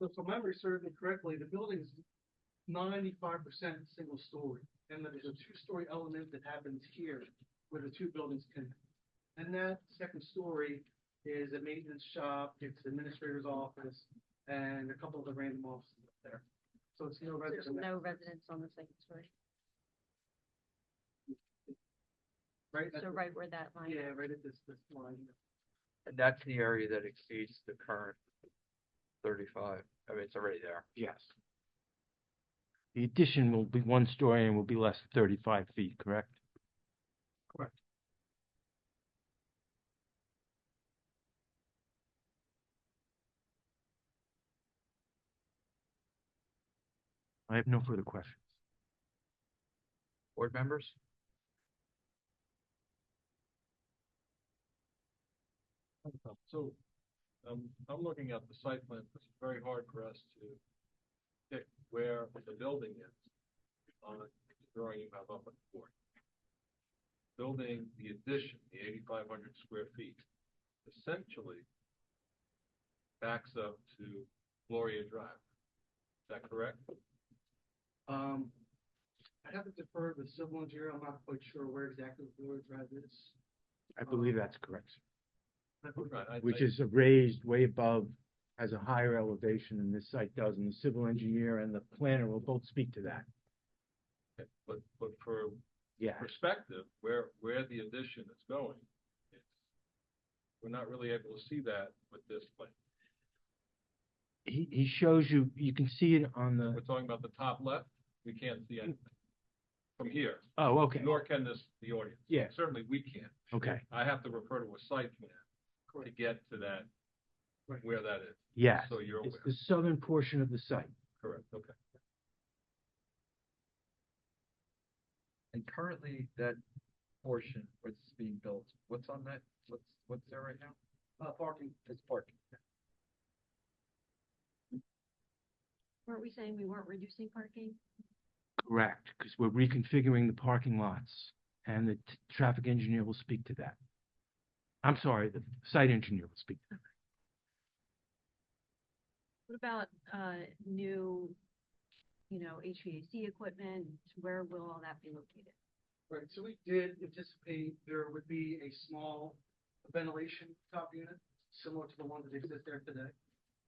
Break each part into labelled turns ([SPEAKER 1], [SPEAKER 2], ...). [SPEAKER 1] If my memory serves me correctly, the building's ninety-five percent single story, and then there's a two-story element that happens here where the two buildings connect. And that second story is a maintenance shop, it's administrator's office, and a couple of the random offices up there. So it's no
[SPEAKER 2] There's
[SPEAKER 1] residential.
[SPEAKER 2] no residents on the second story,
[SPEAKER 1] Right, at
[SPEAKER 2] so
[SPEAKER 1] the-
[SPEAKER 2] right where that line.
[SPEAKER 1] yeah, right at this, this line.
[SPEAKER 3] And that's the area that exceeds the current thirty-five. I mean, it's already there.
[SPEAKER 4] Yes. The addition will be one story and will be less than thirty-five feet, correct? I have no further questions.
[SPEAKER 3] Board members?
[SPEAKER 5] So, um, I'm looking at the site plan, it's very hard for us to pick where the building is on the drawing you have up on the board. Building, the addition, the eighty-five hundred square feet, essentially backs up to Gloria Drive. Is that correct?
[SPEAKER 1] Um, I'd have to defer to the civil engineer, I'm not quite sure where exactly the Village Drive is.
[SPEAKER 4] I believe that's correct,
[SPEAKER 1] I believe-
[SPEAKER 5] Right, I-
[SPEAKER 4] which
[SPEAKER 5] I-
[SPEAKER 4] is raised way above, has a higher elevation than this site does, and the civil engineer and the planner will both speak to that.
[SPEAKER 5] But, but for
[SPEAKER 4] Yeah,
[SPEAKER 5] perspective, where, where the addition is going, it's, we're not really able to see that with this plan.
[SPEAKER 4] he, he shows you, you can see it on the,
[SPEAKER 5] We're talking about the top left, we can't see anything from here,
[SPEAKER 4] oh, okay,
[SPEAKER 5] nor can this, the audience.
[SPEAKER 4] Yeah.
[SPEAKER 5] Certainly, we can't.
[SPEAKER 4] okay,
[SPEAKER 5] I have to refer to a site plan to
[SPEAKER 1] Correct.
[SPEAKER 5] get to that,
[SPEAKER 1] Right.
[SPEAKER 5] where that is.
[SPEAKER 4] yes.
[SPEAKER 5] So you're
[SPEAKER 4] It's
[SPEAKER 5] aware,
[SPEAKER 4] the southern portion of the site.
[SPEAKER 5] correct, okay.
[SPEAKER 3] And currently, that portion what's being built, what's on that, what's, what's there right now?
[SPEAKER 1] Uh, parking,
[SPEAKER 3] It's parking.
[SPEAKER 2] Weren't we saying we weren't reducing parking?
[SPEAKER 4] Correct, because we're reconfiguring the parking lots, and the t- traffic engineer will speak to that. I'm sorry, the site engineer will speak. to
[SPEAKER 2] What about, uh, new, you know, HVAC equipment, where will all that be located?
[SPEAKER 1] right, so we did anticipate there would be a small ventilation top unit, similar to the one that exists there today.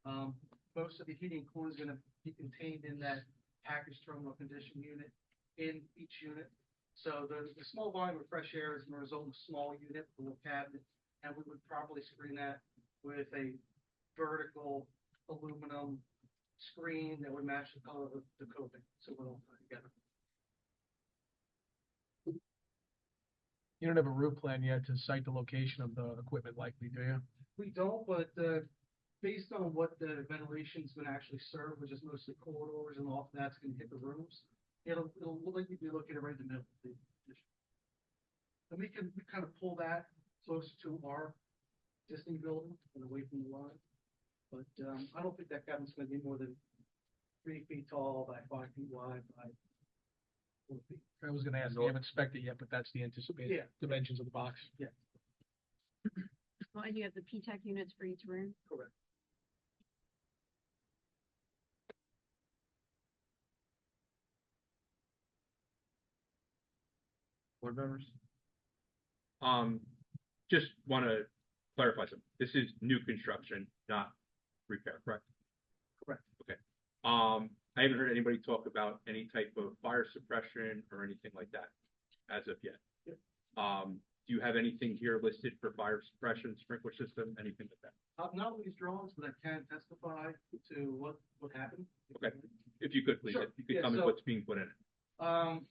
[SPEAKER 1] Um, most of the heating and cooling is gonna be contained in that package terminal condition unit, in each unit. So the, the small volume of fresh air is gonna result in a small unit, a little cabinet, and we would probably screen that with a vertical aluminum screen that would match the color of the coping, so we'll put it together.
[SPEAKER 6] You don't have a route plan yet to cite the location of the equipment likely, do you?
[SPEAKER 1] We don't, but uh based on what the ventilation's gonna actually serve, which is mostly corridors and off that's gonna hit the rooms, it'll, it'll look like you'd be looking right in the middle. of the addition. And we can, we kind of pull that closer to our existing building and away from the line. But, um, I don't think that cabin's gonna be more than three feet tall by five feet wide by four feet.
[SPEAKER 6] I was gonna ask, you
[SPEAKER 3] Nor-
[SPEAKER 6] haven't inspected yet, but that's the anticipated
[SPEAKER 1] Yeah.
[SPEAKER 6] dimensions of the box.
[SPEAKER 2] Well, and you have the P-TEC units for each room?
[SPEAKER 1] Correct.
[SPEAKER 3] Board members?
[SPEAKER 7] Um, just wanna clarify something. This is new construction, not repair, correct?
[SPEAKER 1] Correct.
[SPEAKER 7] Okay. Um, I haven't heard anybody talk about any type of fire suppression or anything like that as of yet.
[SPEAKER 1] Yep.
[SPEAKER 7] Um, do you have anything here listed for fire suppression, sprinkler system, anything like that?
[SPEAKER 1] Uh, not with these drawings, but I can testify to what, what happened.
[SPEAKER 7] Okay. If you could, please,
[SPEAKER 1] Sure.
[SPEAKER 7] if you
[SPEAKER 1] Yeah,
[SPEAKER 7] could comment
[SPEAKER 1] so-
[SPEAKER 7] what's being put in it.
[SPEAKER 1] Um,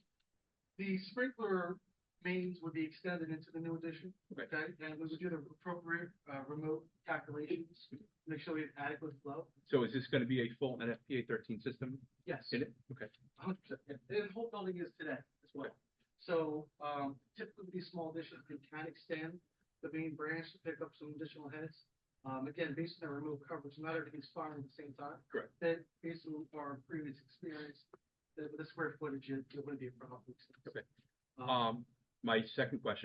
[SPEAKER 1] the sprinkler mains would be extended into the new addition.
[SPEAKER 7] Okay.
[SPEAKER 1] And we would do the appropriate, uh, remote calculations, make sure we have adequate flow.
[SPEAKER 7] So is this gonna be a full NFPA thirteen system
[SPEAKER 1] Yes.
[SPEAKER 7] in it? Okay.
[SPEAKER 1] hundred percent, yeah. And the whole building is today as well. So, um, typically these small additions can kind of extend the main branch to pick up some additional heads. Um, again, based on our remote coverage, not everything's firing at the same time.
[SPEAKER 7] Correct.
[SPEAKER 1] That based on our previous experience, the, the square footage, it it wouldn't be a problem.
[SPEAKER 7] Okay. Um, my second question